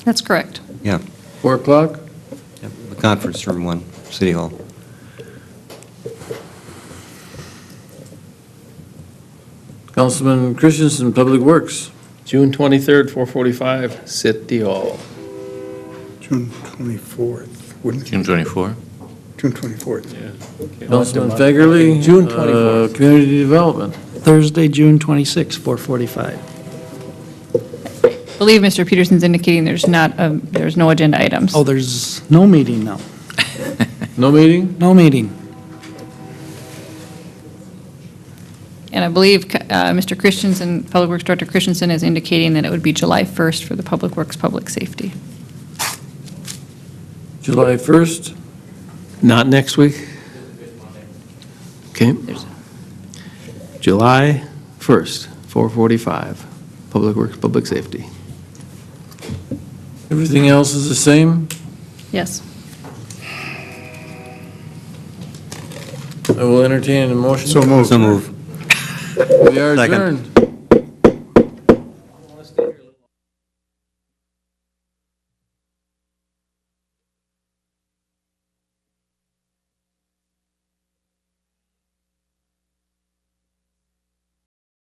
That's correct. Yeah, 4 o'clock? yeah, the conference room one, City Hall. Councilman Christensen, Public Works. June 23rd, 4:45, City Hall. June 24th, wouldn't it? June 24? June 24th. Councilman Fagerly. June uh, 24th. Community Development. Thursday, June 26, 4:45. I believe Mr. Peterson's indicating there's not, um, there's no agenda items. Oh, there's no meeting now. No meeting? No meeting. And I believe uh, Mr. Christensen, Public Works Director Christensen is indicating that it would be July 1st for the Public Works Public Safety. July 1st? Not next week? Okay. There's- July 1st, 4:45, Public Works, Public Safety. Everything else is the same? Yes. I will entertain a motion. So moved. So move. We are Second. adjourned.